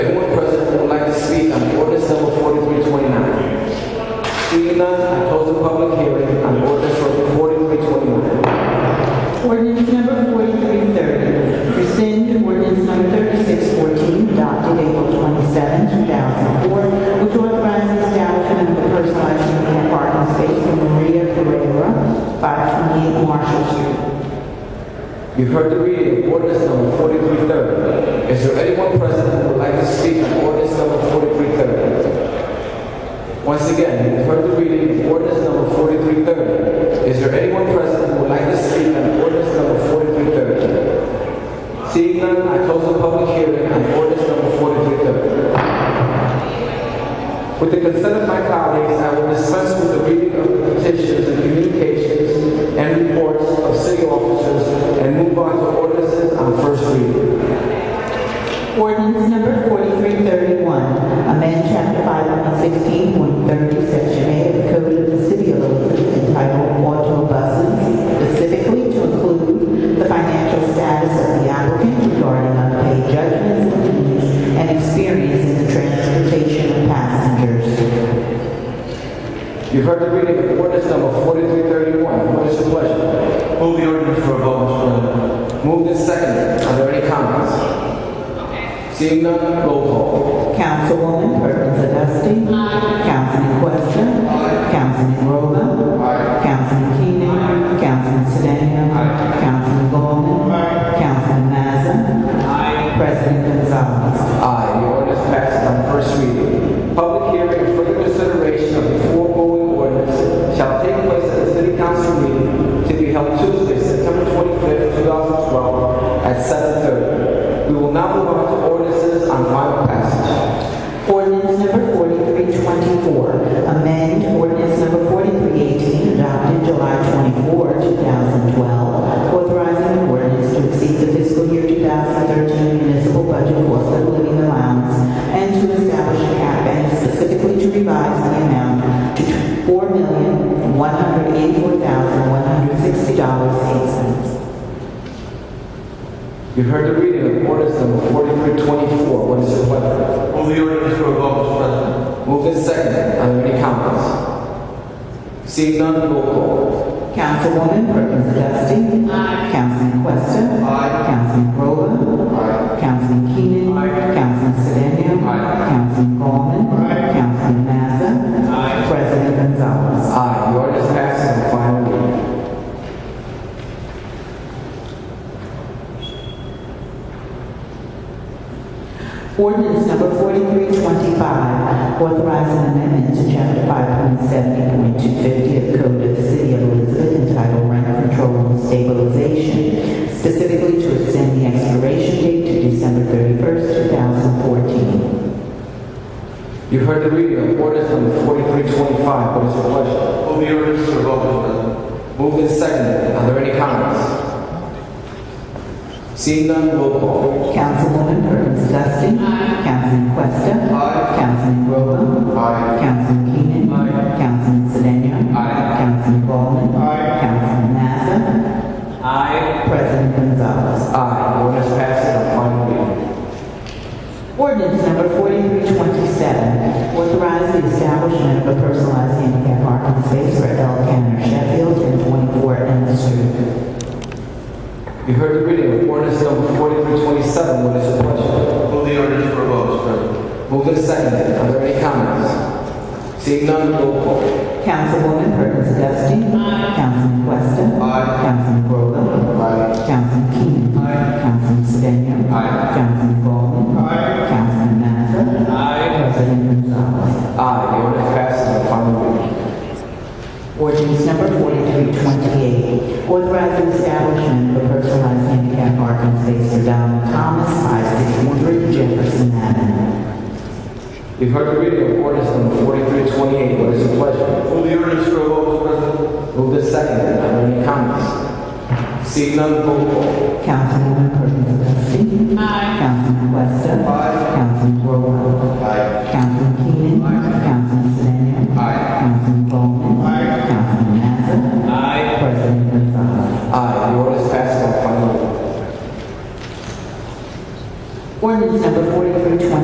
27, 2004, which authorizes establishment of a personalized handicap parking space for Maria Pereira, 528 Marshall Street. You've heard the reading of ordinance number 4330. Is there anyone present who would like to speak on ordinance number 4330? Once again, you've heard the reading of ordinance number 4330. Is there anyone present who would like to speak on ordinance number 4330? Seeing none, I close the public hearing on ordinance number 4330. With the consent of my colleagues, I will dispense with the reading of the petitions and communications and reports of city officers and move on to ordinances on first reading. Ordinance number 4331, amend chapter 516, 130, section A of the Code of the City of Elizabeth entitled Auto Buses, specifically to include the financial status of the applicant regarding unpaid judgments and fees and experience in the transportation of passengers. You've heard the reading of ordinance number 4331. What is your pleasure? Move the ordinance for a vote, Mr. President. Moved and seconded. Are there any comments? Seeing none, roll call. Councilwoman Perkins Dusty. Councilman Questa. Councilman Rowland. Councilman Keenan. Councilman Sedan. Councilman Gollman. Councilman Mazza. President Gonzalez. Aye, the ordinance passes on first reading. Public hearing and further consideration of the foregoing ordinance shall take place at the city council meeting to be held Tuesday, September twenty-fifth, two thousand twelve, at seven thirty. We will now move on to ordinances on final passage. Ordinance number 4324, amend ordinance number 4318 adopted July 24, 2012, authorizing an ordinance to exceed the fiscal year 2013 municipal budget cost of living allowance and to establish a cap and specifically to revise the amount to $4,184,160.08. You've heard the reading of ordinance number forty-three twenty-four. What is your pleasure? Move the ordinance for a vote, Mr. President. Moved and seconded. Are there any comments? Seeing none, roll call. Councilwoman Perkins Dusting. Councilman Questa. Councilman Rowland. Councilman Keenan. Councilman Sedan. Councilman Gollman. Councilman Mazza. President Gonzalez. Aye, the ordinance passes on final reading. Ordinance number 4325, authorizing amendment to chapter 5.70.250 of the Code of the City of Elizabeth entitled Rent Control and Stabilization, specifically to extend the expiration date to December 31st, 2014. You've heard the reading of ordinance number 4325. What is your pleasure? Move the ordinance for a vote, Mr. President. Moved and seconded. Are there any comments? Seeing none, roll call. Councilwoman Perkins Dusting. Councilman Questa. Councilman Rowland. Councilman Keenan. Councilman Sedan. Councilman Ballmer. Councilman Mazza. President Gonzalez. Aye, the ordinance passes on final reading. Ordinance number 4327, authorize the establishment of a personalized handicap parking space for L. Cantor Sheffield and 24 Elm Street. You've heard the reading of ordinance number 4327. What is your pleasure? Move the ordinance for a vote, Mr. President. Moved and seconded. Are there any comments? Seeing none, roll call. Councilwoman Perkins Dusting. Councilman Questa. Councilman Rowland. Councilman Keenan. Councilman Sedan. Councilman Ballmer. Councilman Mazza. President Gonzalez. Aye, the ordinance passes on final reading. Ordinance number 4328, authorizing establishment of a personalized handicap parking space for Donald Thomas, 5613 Jefferson Avenue. You've heard the reading of ordinance number 4328. What is your pleasure? Move the ordinance for a vote, Mr. President. Moved and seconded. Are there any comments? Seeing none, roll call. Councilwoman Perkins Dusting. Councilman Questa. Councilman